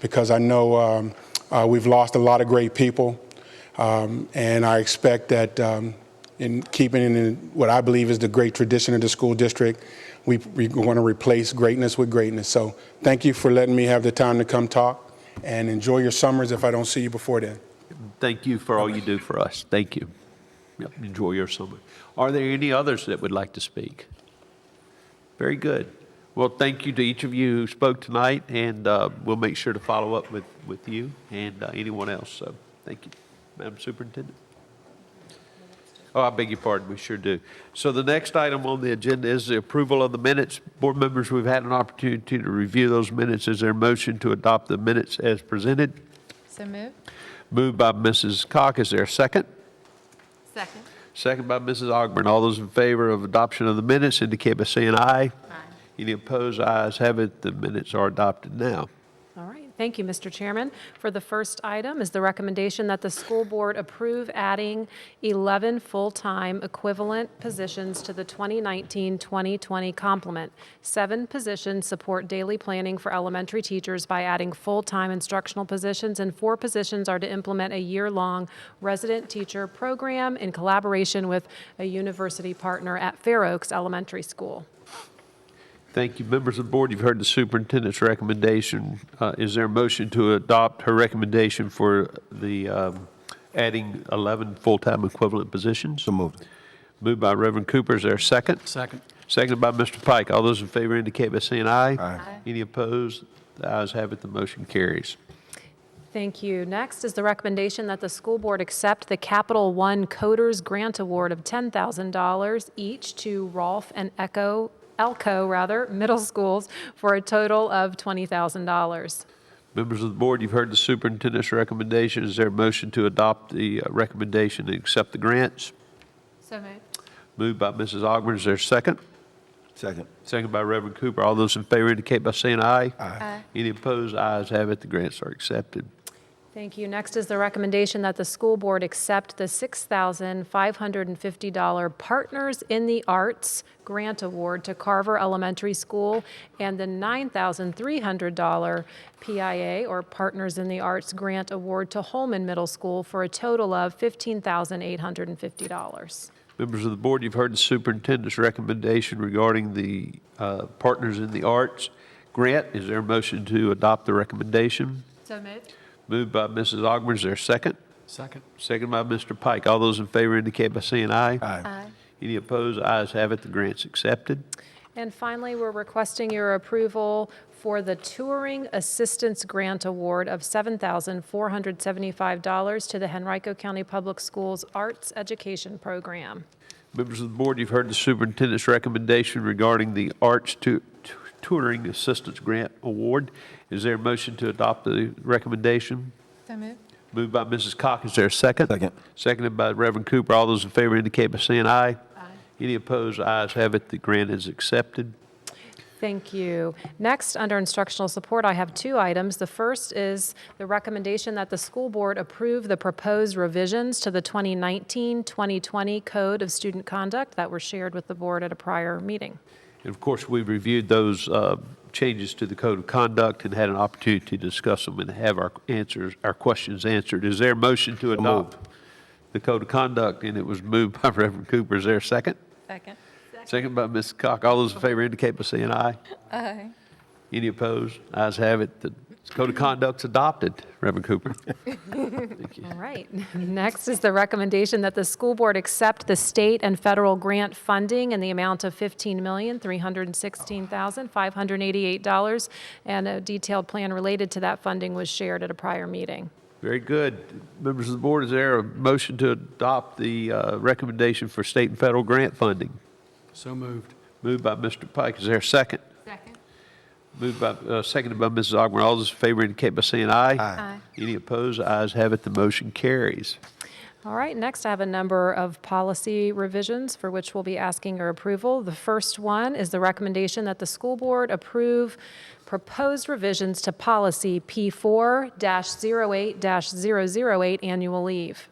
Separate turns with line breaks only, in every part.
because I know um, uh, we've lost a lot of great people. Um, and I expect that um, in keeping in what I believe is the great tradition of the school district, we, we want to replace greatness with greatness. So thank you for letting me have the time to come talk and enjoy your summers if I don't see you before then.
Thank you for all you do for us. Thank you. Yep, Enjoy your summer. Are there any others that would like to speak? Very good. Well, thank you to each of you who spoke tonight, and uh, we'll make sure to follow up with, with you and uh, anyone else. So, thank you, Madam Superintendent. Oh, I beg your pardon, we sure do. So the next item on the agenda is the approval of the minutes. Board members, we've had an opportunity to review those minutes. Is there a motion to adopt the minutes as presented?
So moved.
Moved by Mrs. Cock, is there a second?
Second.
Second by Mrs. Augmiron. All those in favor of adoption of the minutes indicate by saying aye.
Aye.
Any opposed, ayes have it, the minutes are adopted now.
All right, thank you, Mr. Chairman. For the first item is the recommendation that the school board approve adding 11 full-time equivalent positions to the 2019-2020 complement. Seven positions support daily planning for elementary teachers by adding full-time instructional positions, and four positions are to implement a year-long resident teacher program in collaboration with a university partner at Fair Oaks Elementary School.
Thank you, members of the board, you've heard the superintendent's recommendation. Uh, Is there a motion to adopt her recommendation for the um, adding 11 full-time equivalent positions? So moved. Moved by Reverend Cooper, is there a second?
Second.
Seconded by Mr. Pike. All those in favor indicate by saying aye.
Aye.
Any opposed? The ayes have it, the motion carries.
Thank you. Next is the recommendation that the school board accept the Capital One Coders Grant Award of $10,000 each to Rolf and Echo, Elko, rather, middle schools for a total of $20,000.
Members of the board, you've heard the superintendent's recommendation. Is there a motion to adopt the uh, recommendation and accept the grants?
So moved.
Moved by Mrs. Augmiron, is there a second?
Second.
Second by Reverend Cooper. All those in favor indicate by saying aye.
Aye.
Any opposed, ayes have it, the grants are accepted.
Thank you. Next is the recommendation that the school board accept the $6,550 Partners in the Arts Grant Award to Carver Elementary School and the $9,300 PIA, or Partners in the Arts Grant Award to Holman Middle School for a total of $15,850.
Members of the board, you've heard the superintendent's recommendation regarding the uh, Partners in the Arts grant. Is there a motion to adopt the recommendation?
So moved.
Moved by Mrs. Augmiron, is there a second?
Second.
Second by Mr. Pike. All those in favor indicate by saying aye.
Aye.
Any opposed, ayes have it, the grant's accepted.
And finally, we're requesting your approval for the Touring Assistance Grant Award of $7,475 to the Henrico County Public Schools Arts Education Program.
Members of the board, you've heard the superintendent's recommendation regarding the Arts Tu- Tu- Tutoring Assistance Grant Award. Is there a motion to adopt the recommendation?
So moved.
Moved by Mrs. Cock, is there a second?
Second.
Seconded by Reverend Cooper. All those in favor indicate by saying aye.
Aye.
Any opposed, ayes have it, the grant is accepted.
Thank you. Next, under instructional support, I have two items. The first is the recommendation that the school board approve the proposed revisions to the 2019-2020 Code of Student Conduct that were shared with the board at a prior meeting.
And of course, we reviewed those uh, changes to the code of conduct and had an opportunity to discuss them and have our answers, our questions answered. Is there a motion to adopt the code of conduct? And it was moved by Reverend Cooper. Is there a second?
Second.
Second by Ms. Cock. All those in favor indicate by saying aye.
Aye.
Any opposed? Ayes have it. The code of conduct's adopted, Reverend Cooper.
All right. Next is the recommendation that the school board accept the state and federal grant funding in the amount of $15,316,588, and a detailed plan related to that funding was shared at a prior meeting.
Very good. Members of the board, is there a motion to adopt the uh, recommendation for state and federal grant funding?
So moved.
Moved by Mr. Pike. Is there a second?
Second.
Moved by, uh, seconded by Mrs. Augmiron. All those in favor indicate by saying aye.
Aye.
Any opposed? Ayes have it, the motion carries.
All right, next I have a number of policy revisions for which we'll be asking your approval. The first one is the recommendation that the school board approve proposed revisions to policy P4-08-008 annual leave.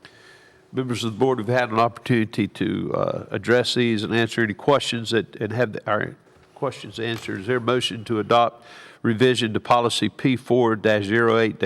Members of the board, we've had an opportunity to uh, address these and answer any questions that, and have our questions answered. Is there a motion to adopt revision to policy P4-08-1